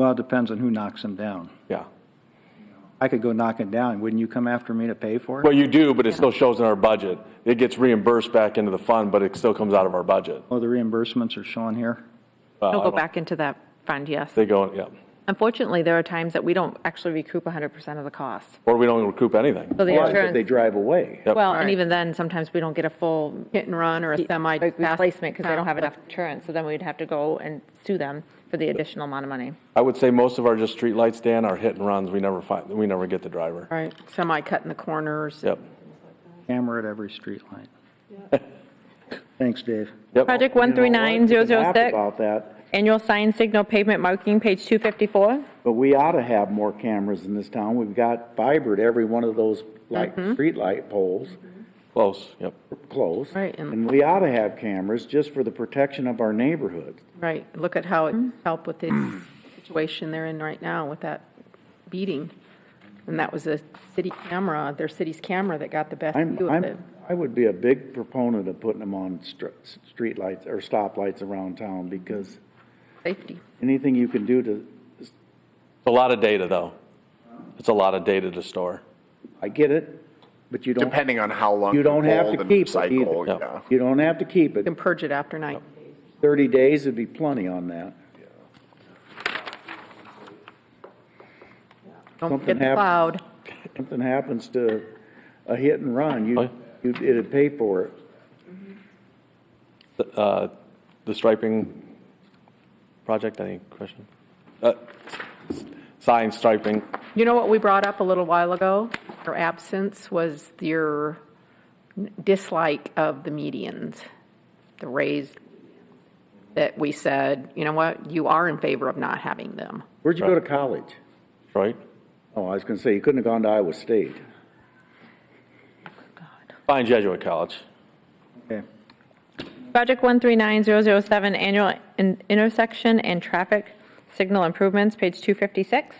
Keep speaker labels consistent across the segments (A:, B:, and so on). A: Well, it depends on who knocks them down.
B: Yeah.
A: I could go knock it down, wouldn't you come after me to pay for
B: Well,
A: it?
B: you do, but it still shows in our budget. It gets reimbursed back into the fund, but it still comes out of our budget.
A: Oh, the reimbursements are shown here?
B: Well,
C: It'll
B: I
C: go
B: don't-
C: back into that fund, yes.
B: They go, yeah,
C: Unfortunately, there are times that we don't actually recoup 100% of the cost.
B: or we don't recoup anything.
C: So the
D: Well, if they
C: insurance,
D: drive away.
B: Yep.
C: well, and even then, sometimes we don't get a full
E: Hit and run or a semi.
C: like, replacement because they don't have enough insurance, so then we'd have to go and sue them for the additional amount of money.
B: I would say most of our just street lights, Dan, are hit and runs. We never find, we never get the driver.
E: Right, semi cut in the corners.
B: Yep,
A: Camera at every street light. Thanks, Dave.
B: yep.
C: Project
D: You know, I could laugh
C: 139006,
D: About that,
C: annual sign signal pavement marking, page 254.
D: but we ought to have more cameras in this town. We've got fiber to every one of those light,
E: Mm-hmm.
D: streetlight poles
B: Close, yep.
D: close.
E: Right, and-
D: And we ought to have cameras just for the protection of our neighborhood.
E: Right, look at how it
D: Mm-hmm.
E: helped with the situation they're in right now with that beating. And that was a city camera, their city's camera that got the best
D: I'm,
E: view of it.
D: I'm, I would be a big proponent of putting them on str- streetlights or stoplights around town because
E: Safety.
D: anything you can do to,
B: It's a lot of data, though. It's a lot of data to store.
D: I get it, but you don't,
F: depending on how long
D: you don't have
F: hold
D: to
F: and
D: keep it
F: cycle,
D: either.
F: yeah.
D: You don't have to keep it.
E: You can purge it after night.
D: Thirty days would be plenty on that.
E: Don't
D: Something
E: get the
D: happened.
E: cloud.
D: Something happens to a hit and run, you,
B: Oh, yeah.
D: you, it'd pay for it.
B: Uh, The striping project, any question? Uh, s- Sign striping,
E: You know what we brought up a little while ago? Your absence was your dislike of the medians, the raised, that we said, you know what, you are in favor of not having them.
D: Where'd you go to college?
B: right?
D: Oh, I was gonna say, you couldn't have gone to Iowa State.
B: Fine Jesuit College.
A: Okay.
C: Project 139007, annual in- intersection and traffic signal improvements, page 256.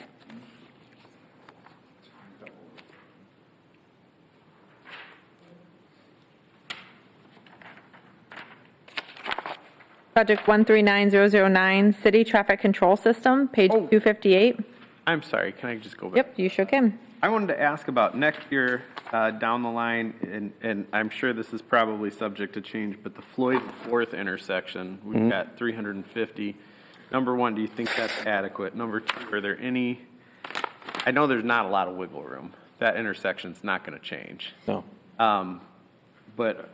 C: Project 139009, city traffic control system, page 258.
G: I'm sorry, can I just go back?
C: Yep, you shook him.
G: I wanted to ask about next year, uh, down the line, and, and I'm sure this is probably subject to change, but the Floyd Fourth intersection, we've got three hundred and fifty. Number one, do you think that's adequate? Number two, are there any, I know there's not a lot of wiggle room. That intersection's not gonna change.
B: No.
G: Um, But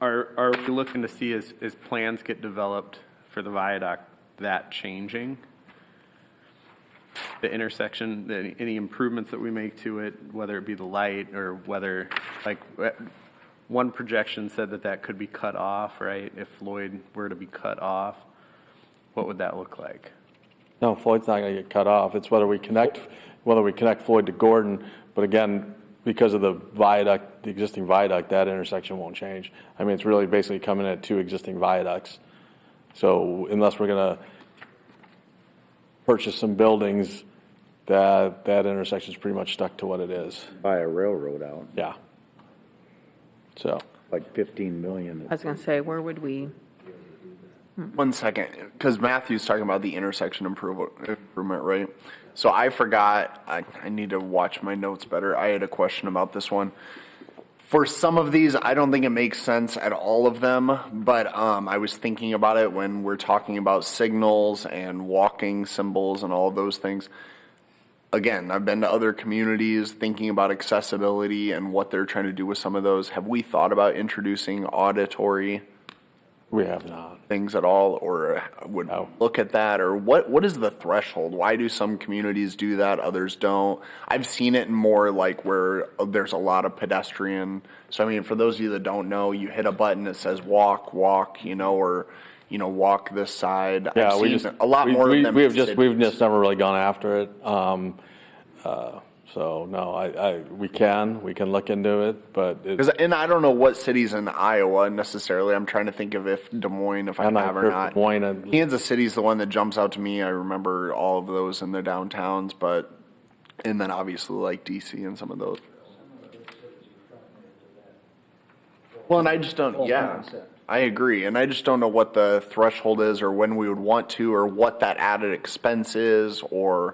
G: are, are we looking to see as, as plans get developed for the viaduct, that changing? The intersection, the- any improvements that we make to it, whether it be the light or whether, like, eh, one projection said that that could be cut off, right? If Floyd were to be cut off, what would that look like?
B: No, Floyd's not going to get cut off. It's whether we connect, whether we connect Floyd to Gordon. But again, because of the viaduct, the existing viaduct, that intersection won't change. I mean, it's really basically coming at two existing viaducts. So unless we're going to purchase some buildings, that, that intersection's pretty much stuck to what it is.
D: Buy a railroad out,
B: Yeah. So,
D: like fifteen million.
E: I was going to say, where would we?
F: One second, because Matthew's talking about the intersection improve- improvement, right? So I forgot, I, I need to watch my notes better. I had a question about this one. For some of these, I don't think it makes sense at all of them, but um, I was thinking about it when we're talking about signals and walking symbols and all of those things. again, I've been to other communities thinking about accessibility and what they're trying to do with some of those. Have we thought about introducing auditory
B: we have not.
F: things at all or uh, would
B: No.
F: look at that or what what is the threshold? Why do some communities do that, others don't? I've seen it in more like where uh, there's a lot of pedestrian. So I mean, for those of you that don't know, you hit a button that says walk, walk, you know, or you know, walk this side.
B: Yeah,
F: I've
B: we
F: seen
B: just.
F: a lot
B: we-
F: more
B: we-
F: of them.
B: We
F: in
B: have just, we've
F: cities.
B: just never really gone after it. Um, uh, so no, I, I, we can, we can look into it, but it-
F: Because and I don't know what cities in Iowa necessarily. I'm trying to think of if Des Moines, if I
B: I'm not
F: have
B: sure
F: or
B: if
F: not.
B: Des Moines and-
F: Kansas City's the one that jumps out to me. I remember all of those in their downtowns, but and then obviously like DC and some of those. Well, and I just don't. Yeah, I agree, and I just don't know what the threshold is, or when we would want to, or what that added expense is, or